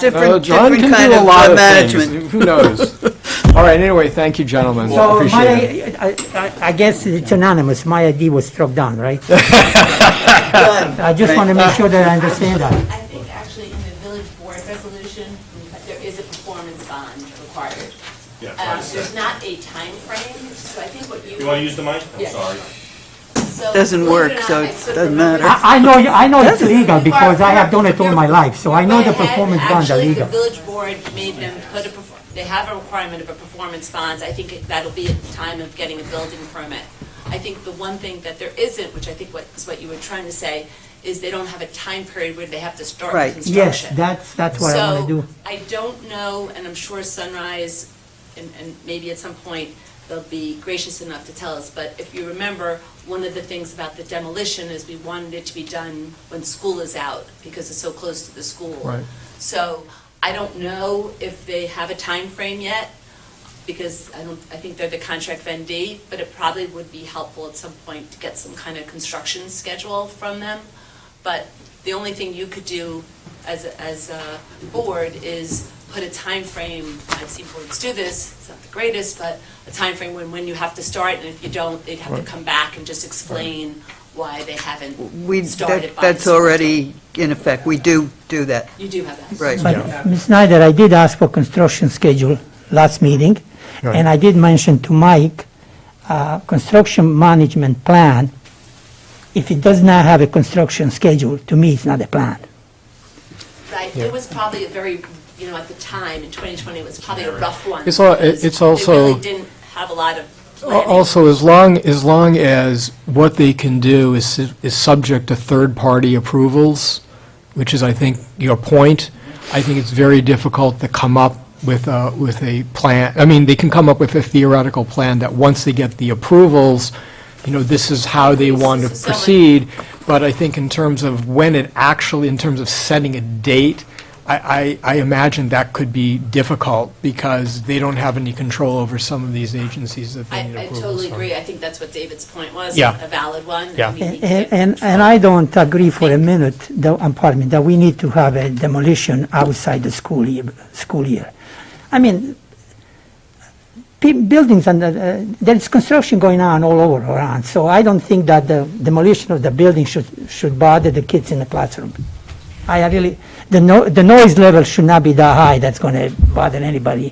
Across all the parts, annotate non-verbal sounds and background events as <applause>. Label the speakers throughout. Speaker 1: Different,
Speaker 2: Oh, Uh, John
Speaker 1: different
Speaker 2: can
Speaker 1: kind
Speaker 2: do a
Speaker 1: of
Speaker 2: lot
Speaker 1: uh,
Speaker 2: of
Speaker 1: management.
Speaker 2: things. Who knows? All right, anyway, thank you, gentlemen.
Speaker 3: So
Speaker 2: Appreciate it.
Speaker 3: my, I, I- I guess it's anonymous, my ID was struck down,
Speaker 2: <laughs>
Speaker 3: right?
Speaker 1: Done.
Speaker 3: I just want to make sure that I understand that.
Speaker 4: I think actually in the village board resolution, there is a performance bond required.
Speaker 5: Yeah,
Speaker 4: Uh,
Speaker 5: it's like-
Speaker 4: There's not a time frame, so I think what you.
Speaker 5: You want to use the mic? I'm
Speaker 4: Yeah.
Speaker 5: sorry.
Speaker 4: So
Speaker 1: Doesn't
Speaker 4: believe
Speaker 1: work,
Speaker 4: or not,
Speaker 1: so
Speaker 4: I
Speaker 1: it
Speaker 4: sort of
Speaker 1: doesn't
Speaker 4: remember-
Speaker 1: matter.
Speaker 3: I, I know, I know it's legal because I have
Speaker 4: Or-
Speaker 3: done it all my life, so I know the
Speaker 4: But had-
Speaker 3: performance bonds are legal.
Speaker 4: Actually, the village board made them put a, perf- they have a requirement of a performance bond. I think that'll be at the time of getting a building permit. I think the one thing that there isn't, which I think what, is what you were trying to say, is they don't have a time period where they have to start
Speaker 1: Right.
Speaker 4: construction.
Speaker 3: Yes, that's, that's what I want to do.
Speaker 4: So, I don't know, and I'm sure Sunrise, and, and maybe at some point, they'll be gracious enough to tell us, but if you remember, one of the things about the demolition is we wanted it to be done when school is out, because it's so close to the school.
Speaker 2: Right.
Speaker 4: So, I don't know if they have a time frame yet, because I don't, I think they're the contract vendee, but it probably would be helpful at some point to get some kind of construction schedule from them. But the only thing you could do as, a- as a board is put a time frame. I've seen boards do this, it's not the greatest, but a time frame when, when you have to start, and if you don't, they'd have to come back and just explain why they
Speaker 1: We,
Speaker 4: haven't started
Speaker 1: that-
Speaker 4: by.
Speaker 1: that's
Speaker 4: a certain
Speaker 1: already in effect. We do do that,
Speaker 4: date. You do have that.
Speaker 1: right.
Speaker 3: But Ms. Snyder, I did ask for construction schedule last meeting, and I did mention to Mike, uh, construction management plan, if it does not have a construction schedule, to me, it's not a plan.
Speaker 4: Right, it was probably a very, you know, at the time, in 2020, it was probably a rough one.
Speaker 2: It's al- it-
Speaker 4: because
Speaker 2: it's
Speaker 4: They
Speaker 2: also-
Speaker 4: really didn't have a lot of
Speaker 2: Al-
Speaker 4: planning.
Speaker 2: Also, as long, as long as what they can do is, su- is subject to third-party approvals, which is, I think, your point, I think it's very difficult to come up with a, with a plan, I mean, they can come up with a theoretical plan that once they get the approvals, you know, this is how they want to
Speaker 4: This is so much-
Speaker 2: proceed, but I think in terms of when it actually, in terms of setting a date, I, I I imagine that could be difficult, because they don't have any control over some of these agencies that they
Speaker 4: I,
Speaker 2: need
Speaker 4: I
Speaker 2: approvals
Speaker 4: totally
Speaker 2: from.
Speaker 4: agree. I think that's what David's point was.
Speaker 2: Yeah.
Speaker 4: A valid one. I
Speaker 2: Yeah.
Speaker 4: mean, he
Speaker 3: And,
Speaker 4: can't
Speaker 3: and, and
Speaker 4: control-
Speaker 3: I don't agree for a minute, that, um, pardon me, that we need to have a demolition outside the school year, school year. I mean, pe- buildings and, uh, there's construction going on all over around, so I don't think that the demolition of the building should, should bother the kids in the classroom. I really, the no, the noise level should not be that high, that's gonna bother anybody.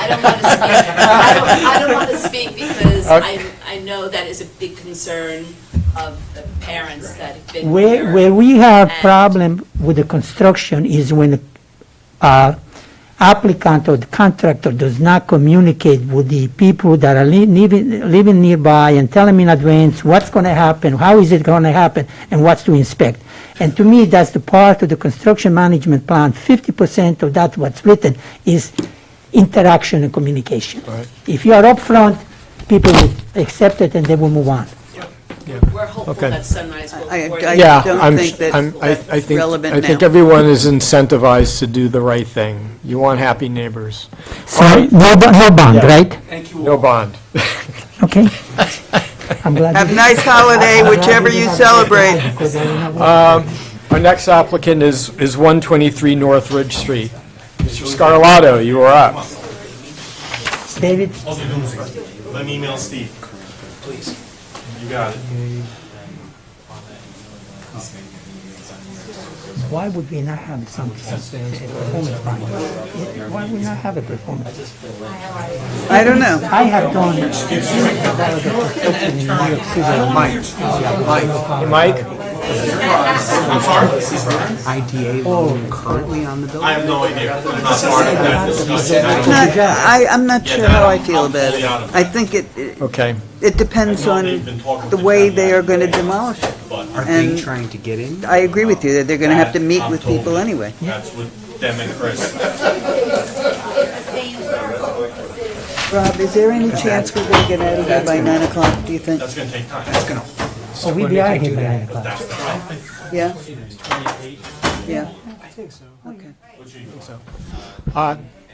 Speaker 4: I don't want to speak, I don't, I don't want to speak because I, I know that is a big concern of the parents that have been
Speaker 3: Where,
Speaker 4: here.
Speaker 3: where we have
Speaker 4: And-
Speaker 3: problem with the construction is when uh, applicant or the contractor does not communicate with the people that are li- living, living nearby and tell them in advance what's going to happen, how is it going to happen, and what's to inspect. And to me, that's the part of the construction management plan, 50% of that what's written is interaction and communication. If you are upfront, people will accept it and they will move on.
Speaker 4: We're hopeful
Speaker 2: Okay.
Speaker 4: that Sunrise will.
Speaker 1: I-
Speaker 4: work
Speaker 1: I-
Speaker 4: it
Speaker 2: Yeah,
Speaker 1: I don't
Speaker 2: I'm,
Speaker 1: think that's
Speaker 2: I'm, I I think,
Speaker 1: relevant
Speaker 2: I think
Speaker 1: now.
Speaker 2: everyone is incentivized to do the right thing. You want happy neighbors.
Speaker 3: So, no, bo- no bond, right?
Speaker 2: No bond.
Speaker 3: Okay. I'm glad.
Speaker 1: Have a nice holiday, whichever you celebrate.
Speaker 3: Um,
Speaker 2: Our next applicant is, is 123 Northridge Street. Mr. Scarlato, you are up.
Speaker 3: David,
Speaker 5: Also, do this. Let me email Steve. Please. You got it.
Speaker 3: why would we not have some a performance bond? Why would we not have a performance?
Speaker 1: I don't know.
Speaker 3: I have done. in New York City.
Speaker 2: Hey, Mike?
Speaker 6: IDA loan currently on the
Speaker 5: I
Speaker 6: building?
Speaker 5: have no idea. I'm not part of that discussion.
Speaker 1: Not- I, I'm not sure how I feel about it. I think it, it-
Speaker 2: Okay.
Speaker 1: it depends on the way they are going to demolish it.
Speaker 6: Are they
Speaker 1: And-
Speaker 6: trying to get in?
Speaker 1: I agree with you that they're going to have to meet with people anyway.
Speaker 5: That's with them and Chris.
Speaker 1: Rob, is there any chance we're going to get out of here by 9 o'clock, do you think?
Speaker 5: That's gonna take time. That's gonna.
Speaker 3: So we be out of here by nine o'clock.
Speaker 1: Yeah? Yeah. Okay.
Speaker 2: Uh,